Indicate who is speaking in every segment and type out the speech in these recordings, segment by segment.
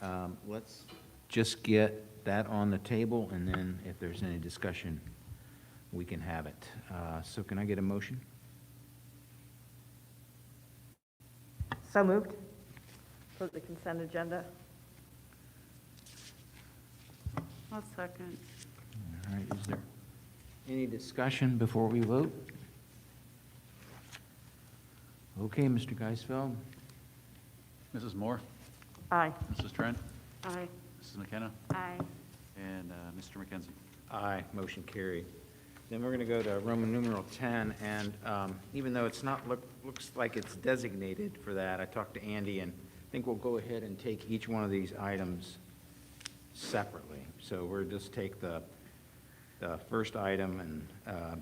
Speaker 1: Um, Let's just get that on the table, and then if there's any discussion, we can have it. Uh, So can I get a motion?
Speaker 2: So moved. For the consent agenda?
Speaker 3: I'll second.
Speaker 1: All right, is there any discussion before we vote? Okay, Mr. Geisfeld?
Speaker 4: Mrs. Moore,
Speaker 2: Aye.
Speaker 4: Mrs. Trent,
Speaker 3: Aye.
Speaker 4: Mrs. McKenna,
Speaker 3: Aye.
Speaker 4: and uh, Mr. McKenzie.
Speaker 1: Aye. Motion carried. Then we're going to go to Roman numeral 10, and um, even though it's not, look- looks like it's designated for that, I talked to Andy, and I think we'll go ahead and take each one of these items separately. So we'll just take the, the first item and, uh,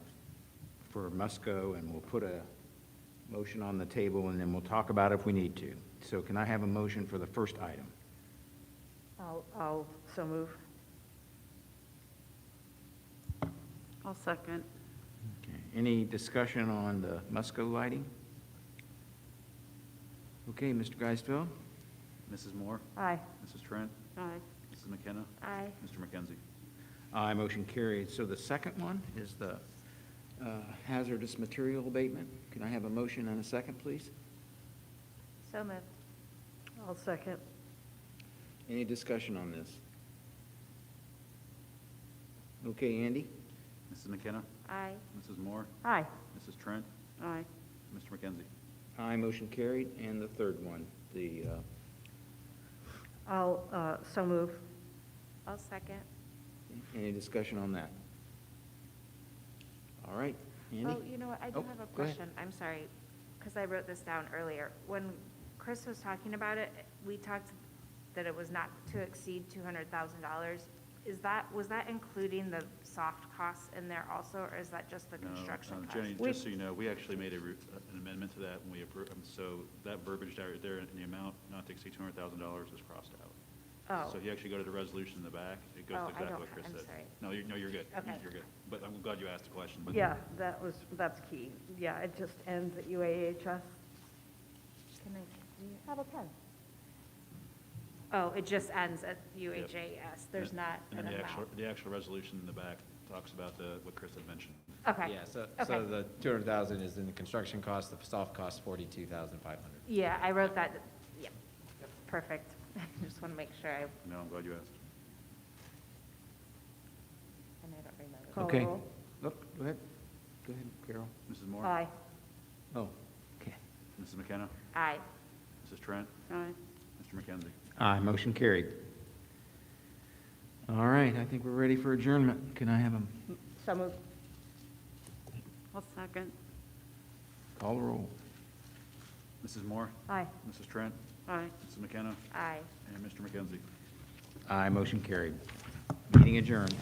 Speaker 1: for Musco, and we'll put a motion on the table, and then we'll talk about it if we need to. So can I have a motion for the first item?
Speaker 2: I'll, I'll so move.
Speaker 3: I'll second.
Speaker 1: Okay. Any discussion on the Musco lighting? Okay, Mr. Geisfeld?
Speaker 4: Mrs. Moore,
Speaker 2: Aye.
Speaker 4: Mrs. Trent,
Speaker 3: Aye.
Speaker 4: Mrs. McKenna,
Speaker 3: Aye.
Speaker 4: Mr. McKenzie.
Speaker 1: Aye, motion carried. So the second one is the uh, hazardous material abatement. Can I have a motion and a second, please?
Speaker 3: So moved.
Speaker 2: I'll second.
Speaker 1: Any discussion on this? Okay, Andy?
Speaker 4: Mrs. McKenna,
Speaker 3: Aye.
Speaker 4: Mrs. Moore,
Speaker 2: Aye.
Speaker 4: Mrs. Trent,
Speaker 3: Aye.
Speaker 4: Mr. McKenzie.
Speaker 1: Aye, motion carried. And the third one, the, uh,
Speaker 2: I'll, uh, so move.
Speaker 3: I'll second.
Speaker 1: any discussion on that? All right, Andy?
Speaker 5: Oh, you know what, I do
Speaker 1: Oh,
Speaker 5: have a
Speaker 1: go ahead.
Speaker 5: question, I'm sorry, because I wrote this down earlier. When Chris was talking about it, we talked that it was not to exceed two hundred thousand dollars. Is that, was that including the soft costs in there also, or is that just the
Speaker 4: No,
Speaker 5: construction
Speaker 4: uh,
Speaker 5: costs?
Speaker 4: Jenny,
Speaker 2: We-
Speaker 4: just so you know, we actually made a re- uh, an amendment to that when we approved, so that verbiage right there in the amount not to exceed $200,000 is crossed out.
Speaker 5: Oh.
Speaker 4: So if you actually go to the resolution in the back, it goes
Speaker 5: Oh, I
Speaker 4: exactly
Speaker 5: don't
Speaker 4: what
Speaker 5: ha-
Speaker 4: Chris
Speaker 5: I'm
Speaker 4: said.
Speaker 5: sorry.
Speaker 4: No, you're, no, you're good. You-
Speaker 5: Okay.
Speaker 4: You're good. But I'm glad you asked the question. but-
Speaker 2: Yeah, that was, that's key. Yeah, it just ends at UAHS. Can I, do you have a pen?
Speaker 5: Oh, it just ends at
Speaker 4: Yep.
Speaker 5: UHAS, there's not
Speaker 4: And
Speaker 5: an
Speaker 4: then the
Speaker 5: amount?
Speaker 4: actual, the actual resolution in the back talks about the, what Chris had mentioned.
Speaker 5: Okay.
Speaker 6: Yeah, so, so
Speaker 5: Okay.
Speaker 6: the two hundred thousand is in the construction cost, the soft cost forty-two thousand five hundred.
Speaker 5: Yeah, I wrote that, yeah, perfect. I just want to make sure I, and
Speaker 4: No, I'm glad you asked.
Speaker 5: I don't remember.
Speaker 2: Call
Speaker 1: Okay.
Speaker 2: roll.
Speaker 1: Look, go ahead. Go ahead, Carol.
Speaker 4: Mrs. Moore?
Speaker 2: Aye.
Speaker 1: Oh, okay.
Speaker 4: Mrs. McKenna?
Speaker 5: Aye,
Speaker 4: Mrs. Trent?
Speaker 3: Aye.
Speaker 4: Mr. McKenzie?
Speaker 1: Aye, motion carried. All right, I think we're ready for adjournment. Can I have a
Speaker 2: So moved.
Speaker 3: I'll second.
Speaker 1: call the roll?
Speaker 4: Mrs. Moore?
Speaker 2: Aye.
Speaker 4: Mrs. Trent?
Speaker 3: Aye.
Speaker 4: Mrs. McKenna?
Speaker 5: aye.
Speaker 4: And Mr. McKenzie?
Speaker 1: Aye, motion carried. Meeting adjourned.